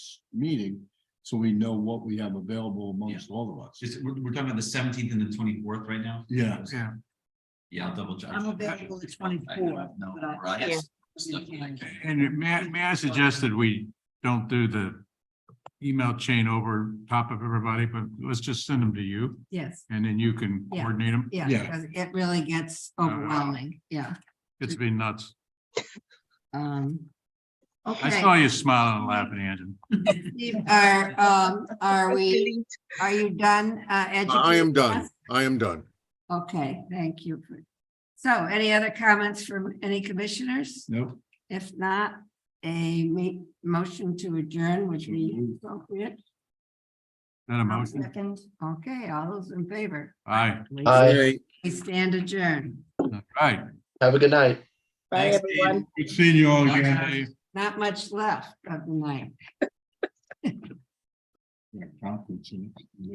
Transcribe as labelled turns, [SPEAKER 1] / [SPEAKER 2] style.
[SPEAKER 1] meeting, so we know what we have available amongst all of us.
[SPEAKER 2] Just, we're, we're talking about the seventeenth and the twenty-fourth right now?
[SPEAKER 1] Yeah,
[SPEAKER 3] Yeah.
[SPEAKER 2] Yeah, I'll double check.
[SPEAKER 4] I'm available the 24th,
[SPEAKER 2] No,
[SPEAKER 4] but I-
[SPEAKER 2] right.
[SPEAKER 5] Yeah.
[SPEAKER 2] Stuff like that.
[SPEAKER 3] And may, I- may I suggest that we don't do the email chain over top of everybody, but let's just send them to you
[SPEAKER 4] yes,
[SPEAKER 3] and then you can
[SPEAKER 4] Yeah.
[SPEAKER 3] coordinate them.
[SPEAKER 4] yeah,
[SPEAKER 1] Yeah.
[SPEAKER 4] because it really gets overwhelming, yeah.
[SPEAKER 3] It's been nuts.
[SPEAKER 4] Um.
[SPEAKER 3] I
[SPEAKER 4] Okay,
[SPEAKER 3] saw you smiling and laughing, Andrew.
[SPEAKER 4] Steve, are, um, are we, are you done, uh, educating?
[SPEAKER 6] I am done.
[SPEAKER 4] us?
[SPEAKER 6] I am done.
[SPEAKER 4] Okay, thank you. for- So any other comments from any commissioners?
[SPEAKER 1] nope.
[SPEAKER 4] If not, a ma- motion to adjourn would be appropriate.
[SPEAKER 3] That a motion?
[SPEAKER 4] Second, okay, all those in favor,
[SPEAKER 3] Aye.
[SPEAKER 7] Hi,
[SPEAKER 4] we stand adjourned.
[SPEAKER 3] All right.
[SPEAKER 7] have a good night.
[SPEAKER 5] Bye,
[SPEAKER 2] Thanks,
[SPEAKER 5] everyone.
[SPEAKER 1] Good seeing you all
[SPEAKER 3] Okay.
[SPEAKER 1] again.
[SPEAKER 4] Not much left of the night.
[SPEAKER 1] Yeah, conference, yeah.